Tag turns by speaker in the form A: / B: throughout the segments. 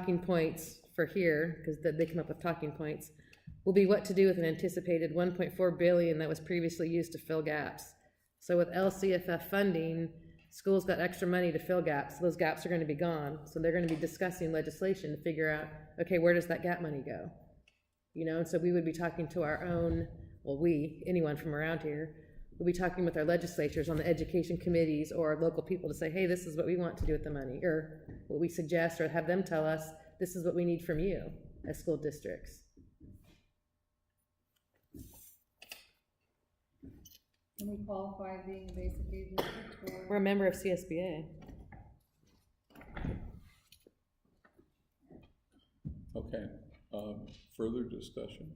A: talking points for here, because they come up with talking points, will be what to do with an anticipated one point four billion that was previously used to fill gaps. So with LCFF funding, schools got extra money to fill gaps, those gaps are gonna be gone, so they're gonna be discussing legislation to figure out, okay, where does that gap money go? You know, and so we would be talking to our own, well, we, anyone from around here, would be talking with our legislatures on the education committees or local people to say, hey, this is what we want to do with the money, or what we suggest, or have them tell us, this is what we need from you as school districts.
B: Can we qualify being a basic aid district
A: We're
B: for?
A: a member of CSBA.
C: Okay, um, further discussion?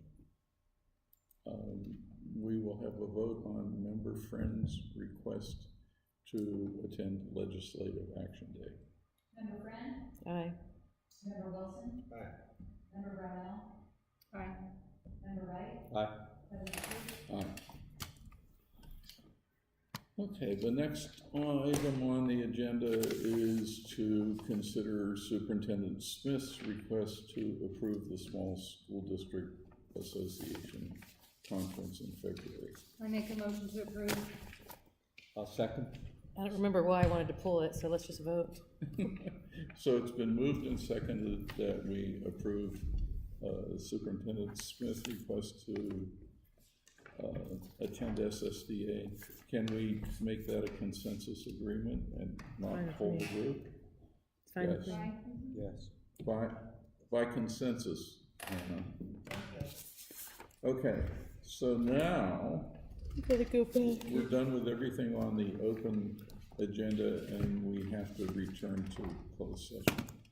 C: Um, we will have a vote on member friends' request to attend legislative action day.
B: Member Friend?
A: Aye.
B: Member Wilson? Member Brownell? Aye. Member Wright?
C: Aye. Okay, the next item on the agenda is to consider Superintendent Smith's request to approve the Small School District Association Conference in February.
B: I make a motion to approve.
D: I'll second.
A: I don't remember why I wanted to pull it, so let's just vote.
C: So it's been moved and seconded that we approve uh, Superintendent Smith's request to uh, attend SSDA. Can we make that a consensus agreement and not
A: Fine with
C: whole
A: me.
C: group?
A: It's fine with
C: Yes.
A: me.
D: Yes.
C: By, by consensus, Anna. Okay, so now, we're done with everything on the open agenda, and we have to return to closed session.